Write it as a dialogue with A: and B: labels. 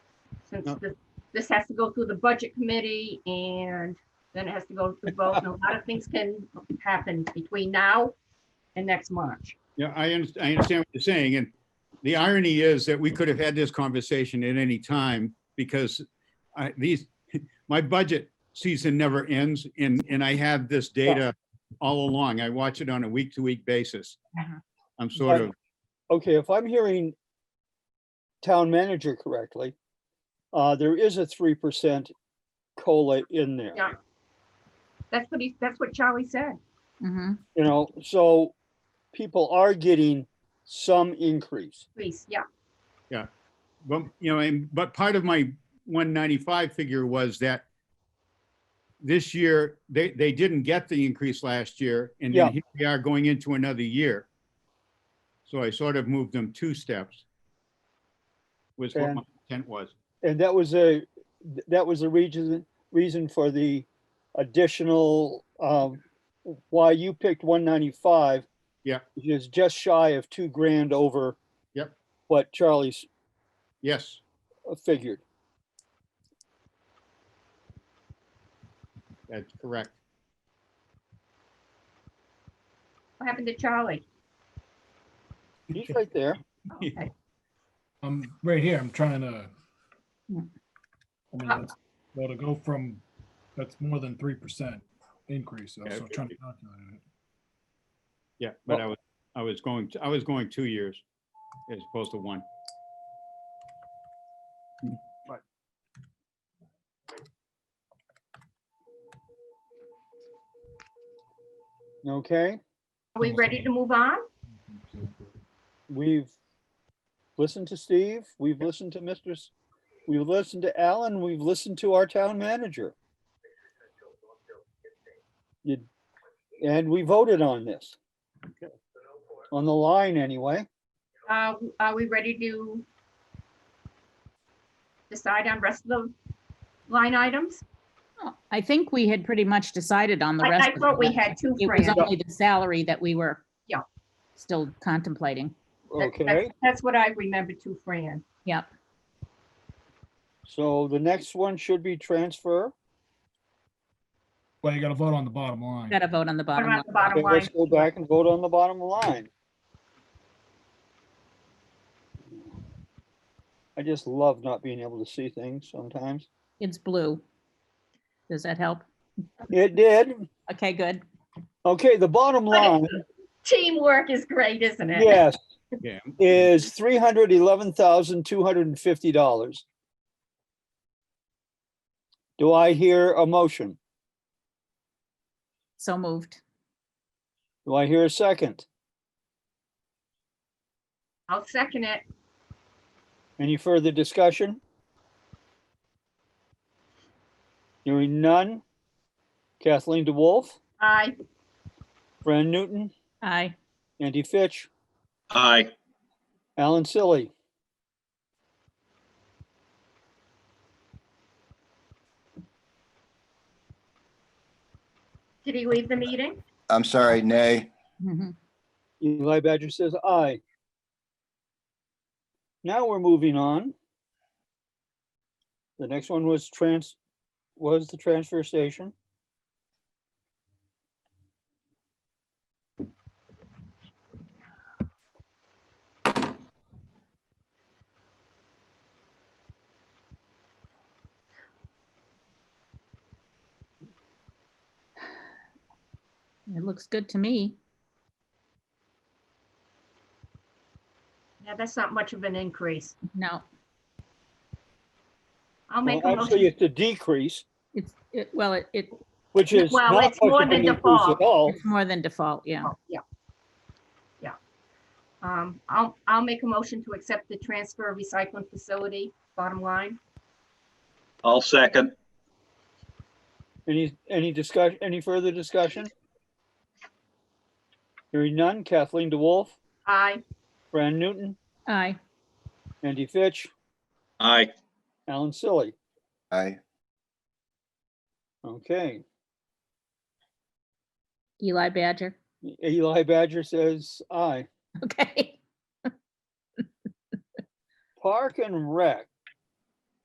A: since
B: No.
A: this, this has to go through the budget committee and then it has to go to the vote. And a lot of things can happen between now and next March.
B: Yeah, I underst- I understand what you're saying, and the irony is that we could have had this conversation at any time because I, these, my budget season never ends, and, and I have this data all along. I watch it on a week-to-week basis.
A: Mhm.
B: I'm sort
C: But-
B: of,
C: Okay, if I'm hearing town manager correctly, uh, there is a three percent COLA in there.
A: Yeah. That's what he, that's what Charlie said.
D: Mm-hmm.
C: You know, so people are getting some increase.
A: Please, yeah.
B: but, you know, and, but part of my 195 figure was that this year, they, they didn't get the increase last year, and
C: Yeah.
B: then here we are going into another year. So I sort of moved them two steps. Was what
C: And-
B: my intent was.
C: And that was a, that was the reason, reason for the additional, um, why you picked one ninety-five.
B: Yeah.
C: Which is just shy of two grand over.
B: Yep.
C: What Charlie's
B: Yes,
C: uh, figured.
B: that's correct.
A: What happened to Charlie?
C: He's right there.
A: Okay.
E: I'm right here, I'm trying to. I
D: Yeah.
E: mean, that's- Well, to go from, that's more than three percent increase, so
B: Yeah,
E: I'm
B: it
E: trying
B: would
E: to calculate it.
B: Yeah, but I was, I was going, I was going two years as opposed to one.
C: Okay.
A: Are we ready to move on?
C: We've listened to Steve, we've listened to Mr. S- We've listened to Alan, we've listened to our town manager. You- And we voted on this. On the line anyway.
A: Uh, are we ready to decide on rest of the line items?
D: I think we had pretty much decided on the rest.
A: I, I
D: of
A: thought we
D: it.
A: had two,
D: It
A: Fran.
D: was only the salary that we were.
A: Yeah.
D: Still contemplating.
A: That- that's-
C: Okay,
A: That's what I remember too, Fran.
D: Yep.
C: so the next one should be transfer.
E: Well, you gotta vote on the bottom line.
D: Got to vote on the
A: What
D: bottom
A: about
D: line.
A: the
C: Okay,
A: bottom line?
C: Let's go back and vote on the bottom line. I just love not being able to see things sometimes.
D: It's blue. Does that help?
C: It did.
D: Okay, good.
C: Okay, the bottom line.
A: Teamwork is great, isn't it?
C: Yes.
B: Yeah.
C: Is three hundred eleven thousand two hundred and fifty dollars. Do I hear a motion?
D: So moved.
C: Do I hear a second?
A: I'll second it.
C: Any further discussion? Hearing none. Kathleen DeWolf,
A: I,
C: Fran Newton,
D: Aye.
C: Andy Fitch,
F: Aye.
C: Alan Silly.
A: did he leave the meeting?
F: I'm sorry, nay.
D: Mhm.
C: Eli Badger says aye. Now we're moving on. The next one was trans, was the transfer station.
D: It looks good to me.
A: Yeah, that's not much of an increase.
D: No,
A: I'll
C: Well,
A: make a
C: Actually,
A: motion.
C: it's a decrease,
D: it's, it, well, it, it-
C: which is
A: Well,
C: not
A: it's
C: much
A: more
C: of an
A: than
C: increase
A: default.
C: at all.
D: it's more than default, yeah.
A: Oh, Yeah. Yeah. Um, I'll, I'll make a motion to accept the transfer of recycling facility, bottom line.
F: I'll second.
C: Any, any discussion, any further discussion? Hearing none, Kathleen DeWolf,
A: I,
C: Fran Newton,
D: Aye.
C: Andy Fitch,
F: Aye.
C: Alan Silly.
F: Aye.
C: Okay,
D: Eli Badger.
C: Eli Badger says aye.
D: Okay.
C: Park and Rec.